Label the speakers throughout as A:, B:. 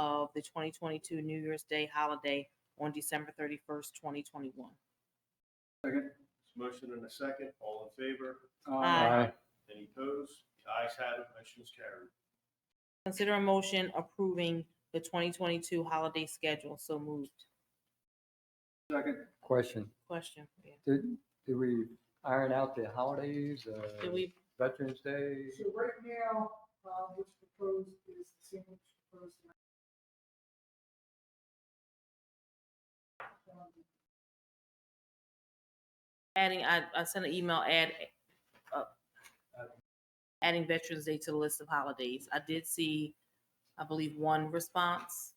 A: the 2022 New Year's Day holiday on December 31st, 2021.
B: Second.
C: Motion and a second, all in favor?
A: Aye.
C: Any opposed? The ayes have it, motion is carried.
A: Consider a motion approving the 2022 holiday schedule. So moved.
B: Second.
D: Question,
A: Question. yeah.
D: did, did we iron out the holidays, uh,
A: Did we,
D: Veterans Day?
E: So right now, uh, what's proposed is the same as proposed. Um,
A: adding, I, I sent an email add, uh, adding Veterans Day to the list of holidays. I did see, I believe, one response.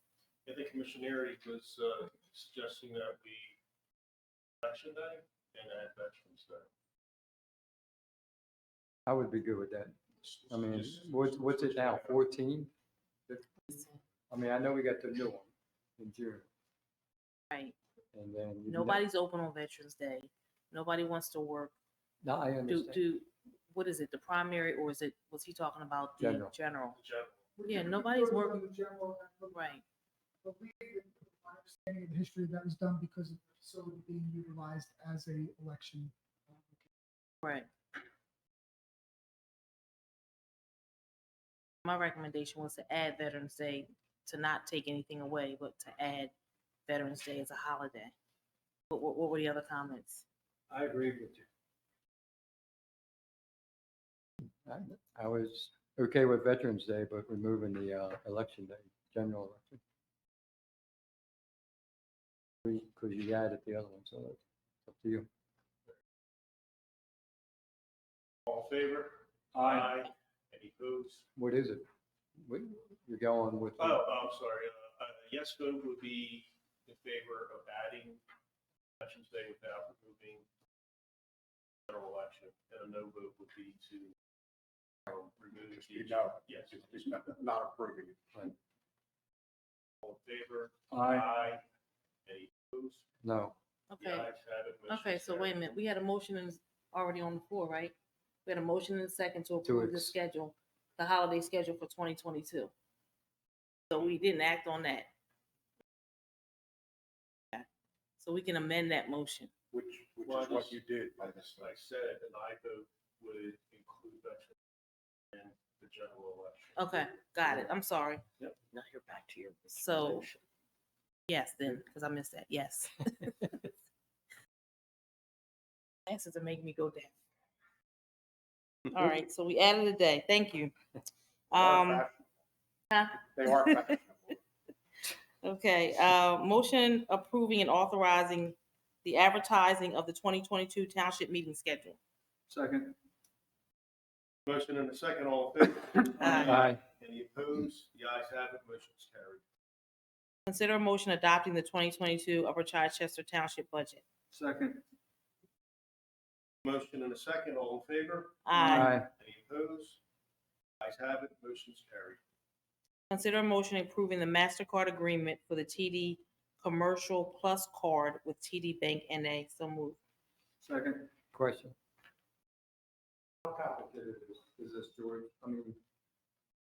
C: I think Commissioner Erie was uh, suggesting that we election day and add Veterans Day.
D: I would be good with that. I mean, what's, what's it now, fourteen? I mean, I know we got the new one in June,
A: Right.
D: and then. you-
A: Nobody's open on Veterans Day. Nobody wants to work.
D: No, I
A: Do,
D: understand.
A: do, what is it, the primary or is it, was he talking about the
D: General.
A: general?
C: The general.
E: we
A: Yeah,
E: can
A: nobody's
E: propose
A: working-
E: on the general,
A: Right.
E: But we, my understanding of the history, that was done because of the facility being utilized as a election.
A: Right. My recommendation was to add Veterans Day, to not take anything away, but to add Veterans Day as a holiday. What, what, what were the other comments?
B: I agree with you.
D: I- I was okay with Veterans Day, but removing the, uh, election day, general election. Because you added the other one, so it's up to you.
C: All in favor?
B: Aye.
C: Any opposed?
D: What is it? What, you're going with?
C: Oh, I'm sorry, uh, a yes vote would be in favor of adding Veterans Day without removing general election, and a no vote would be to um, remove the. Yes.
B: not approving it.
C: All in favor?
B: Aye.
C: Any opposed?
D: No.
C: The
A: Okay,
C: ayes have it. motion
A: okay,
C: is
A: so
C: carried.
A: wait a minute, we had a motion and it's already on the floor, right? We had a motion and a second to approve the
D: ex-
A: schedule, the holiday schedule for twenty twenty-two. So we didn't act on that. Okay, So we can amend that motion.
B: Which,
C: Well, I just-
B: did by
C: As I said, an I vote would include veterans and the general election.
A: Okay, got it. I'm sorry.
C: Yep.
A: Now you're back to your. So, yes, then, because I missed that. Yes. Answers to make me go down. All right, so we added a day. Thank you. Um, huh?
B: They are fashionable.
A: okay, uh, motion approving and authorizing the advertising of the twenty twenty-two township meeting schedule.
B: Second.
C: Motion and a second, all in favor?
A: Aye.
C: Any opposed? The ayes have it, motion is carried.
A: Consider a motion adopting the twenty twenty-two Upper Chichester Township budget.
B: Second.
C: Motion and a second, all in favor?
A: Aye.
C: Any opposed? The ayes have it, motion is carried.
A: Consider a motion approving the MasterCard agreement for the TD Commercial Plus Card with TD Bank NA. So moved.
B: Second.
D: Question.
B: How complicated is, is this, George? I mean.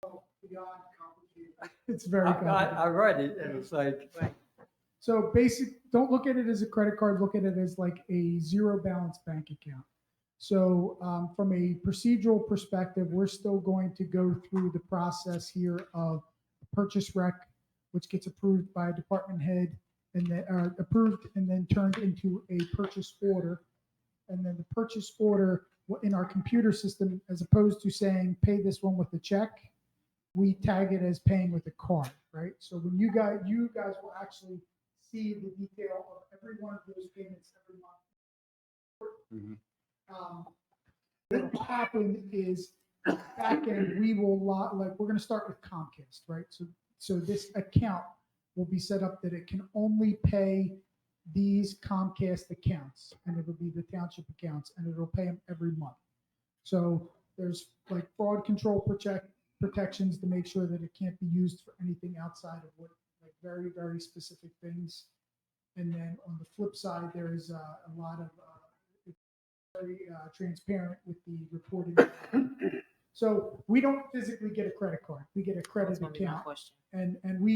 E: Beyond complicated. It's very
D: I, I,
E: complicated.
D: I read it and it's like,
E: So basic, don't look at it as a credit card, look at it as like a zero balance bank account. So um, from a procedural perspective, we're still going to go through the process here of purchase rec, which gets approved by department head and then uh, approved and then turned into a purchase order. And then the purchase order w- in our computer system, as opposed to saying, pay this one with a check, we tag it as paying with a card, right? So when you guys, you guys will actually see the detail of every one of those payments every month.
D: Mhm.
E: Um, What will happen is, back end, we will lot, like, we're gonna start with Comcast, right? So, so this account will be set up that it can only pay these Comcast accounts, and it'll be the township accounts, and it'll pay them every month. So there's like fraud control protect, protections to make sure that it can't be used for anything outside of what, like, very, very specific things. And then on the flip side, there is uh, a lot of, uh, it's very uh, transparent with the reporting. So we don't physically get a credit card. We get a
A: That was
E: credit
A: gonna be my
E: account
A: question.
E: and, and we